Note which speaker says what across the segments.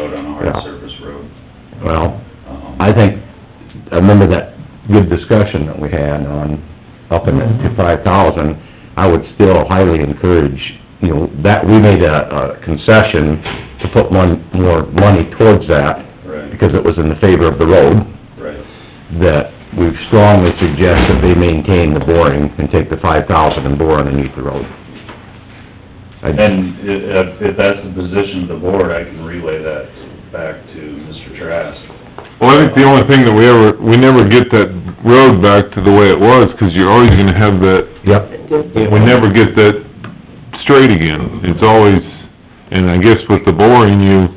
Speaker 1: or a
Speaker 2: Yeah.
Speaker 1: surface road.
Speaker 2: Well,
Speaker 1: Um,
Speaker 2: I think, I remember that good discussion that we had on upping it to five thousand. I would still highly encourage, you know, that, we made a, a concession to put one, more money towards that
Speaker 1: Right,
Speaker 2: because it was in the favor of the road,
Speaker 1: right,
Speaker 2: that we strongly suggest that they maintain the boring and take the five thousand and bore underneath the road. I-
Speaker 1: and i- if, if that's the position of the board, I can relay that back to Mr. Trask.
Speaker 3: Well, I think the only thing that we ever, we never get that road back to the way it was, 'cause you're always gonna have that,
Speaker 2: Yep.
Speaker 3: we never get that straight again. It's always, and I guess with the boring, you,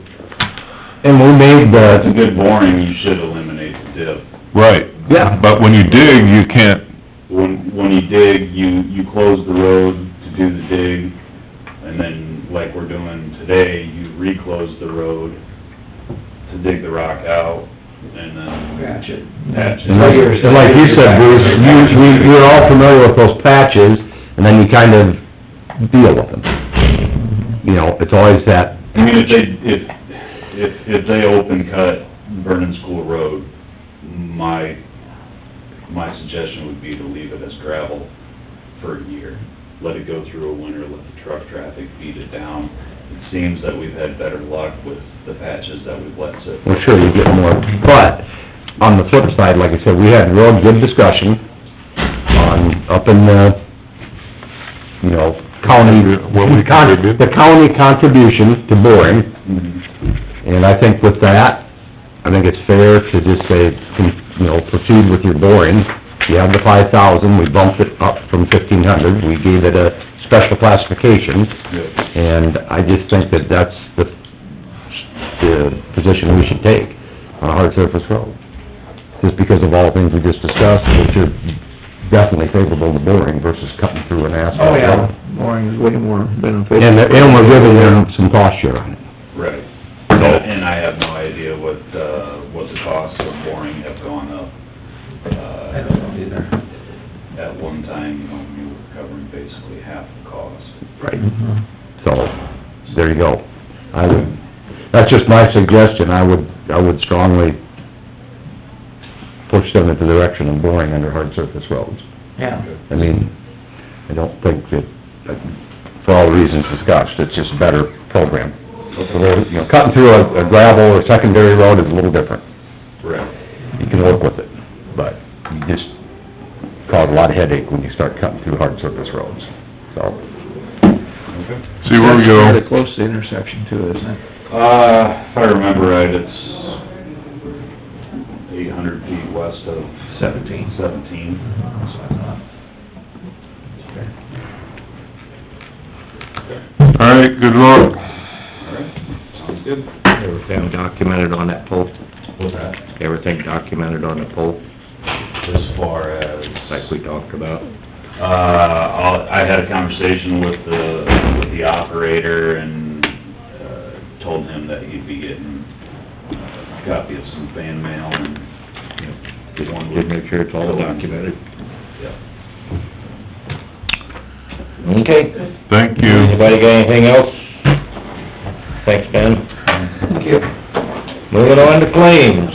Speaker 2: And we made
Speaker 1: That's a
Speaker 2: the,
Speaker 1: good boring, you should eliminate the dip.
Speaker 3: right.
Speaker 2: Yeah.
Speaker 3: But when you dig, you can't,
Speaker 1: When, when you dig, you, you close the road to do the dig, and then, like we're doing today, you reclose the road to dig the rock out, and then... Patch it. Patch
Speaker 2: and like,
Speaker 1: it.
Speaker 2: and like you said, Bruce, you, we, we're all familiar with those patches, and then you kind of deal with them. You know, it's always that,
Speaker 1: I mean, if they, if, if, if they open cut Vernon School Road, my, my suggestion would be to leave it as gravel for a year. Let it go through a winter, let the truck traffic beat it down. It seems that we've had better luck with the patches that we've let sit.
Speaker 2: well, sure, you get more, but, on the flip side, like I said, we had a real good discussion on, up in the, you know, county,
Speaker 3: What we contribute.
Speaker 2: the county contribution to boring, And I think with that, I think it's fair to just say, con- you know, proceed with your boring. You have the five thousand, we bumped it up from fifteen hundred, we gave it a special classification,
Speaker 1: Yeah.
Speaker 2: and I just think that that's the, the position we should take on a hard surface road. Just because of all the things we just discussed, which are definitely favorable to boring versus cutting through an
Speaker 4: Oh,
Speaker 2: asphalt road.
Speaker 4: Mooring is way more beneficial.
Speaker 2: And, and we're giving them some cost share on it.
Speaker 1: Right. And I have no idea what, uh, what the costs of boring have gone up. I don't know either. At one time, you know, we were covering basically half the cost.
Speaker 4: Mm-hmm.
Speaker 2: So, there you go. I would, that's just my suggestion, I would, I would strongly push them into the direction of boring under hard surface roads.
Speaker 4: Yeah.
Speaker 2: I mean, I don't think that, that- for all the reasons discussed, it's just a better program. So there- you know, Cutting through a a gravel or secondary road is a little different,
Speaker 1: Right.
Speaker 2: you can work with it, but you just cause a lot of headache when you start cutting through hard surface roads, so.
Speaker 1: Okay.
Speaker 3: see where we go.
Speaker 4: Pretty close to the intersection too, isn't it?
Speaker 1: Uh, if I remember right, it's eight hundred feet west of
Speaker 4: Seventeen.
Speaker 1: seventeen. That's what I thought.
Speaker 3: All right, good luck.
Speaker 1: All right, sounds good.
Speaker 5: Everything documented on that pole,
Speaker 1: What's that?
Speaker 5: everything documented on the pole,
Speaker 1: As far as...
Speaker 5: like we talked about.
Speaker 1: Uh, I'll- I had a conversation with the, with the operator and, uh, told him that he'd be getting uh, a copy of some fan mail and, you know,
Speaker 5: Just
Speaker 1: one
Speaker 5: wanted to make sure it's all documented.
Speaker 1: Yeah.
Speaker 5: Okay.
Speaker 3: Thank you.
Speaker 5: Anybody got anything else? Thanks, Ben. Thank you. Moving on to claims.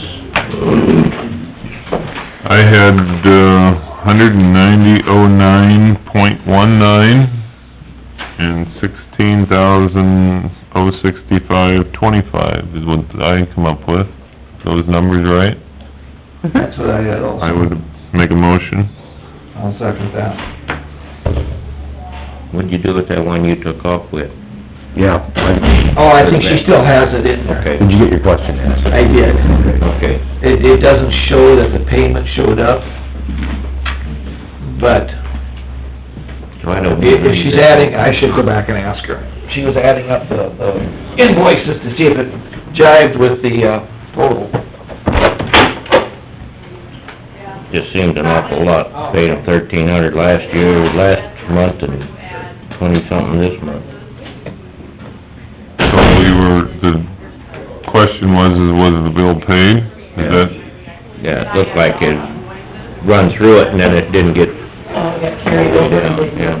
Speaker 3: I had, uh, hundred and ninety oh nine point one nine and sixteen thousand oh sixty-five twenty-five is what I come up with. Those numbers right?
Speaker 4: That's what I had also.
Speaker 3: I would make a motion.
Speaker 4: I'll second that.
Speaker 5: What'd you do with that one you took off with?
Speaker 2: Yeah, I-
Speaker 4: Oh, I think she still has it in there.
Speaker 5: Okay,
Speaker 2: did you get your question asked?
Speaker 4: I did.
Speaker 5: okay.
Speaker 4: It, it doesn't show that the payment showed up, but
Speaker 5: So I don't.
Speaker 4: if, if she's adding, I should go back and ask her. She was adding up the, the invoices to see if it jived with the, uh, total.
Speaker 5: Just seemed an awful lot, paid them thirteen hundred last year, last month, and twenty-something this month.
Speaker 3: So we were, the question was, is was the bill paid? Is that,
Speaker 5: Yeah, it looked like it run through it, and then it didn't get
Speaker 6: Oh, it got carried over.
Speaker 5: Yeah.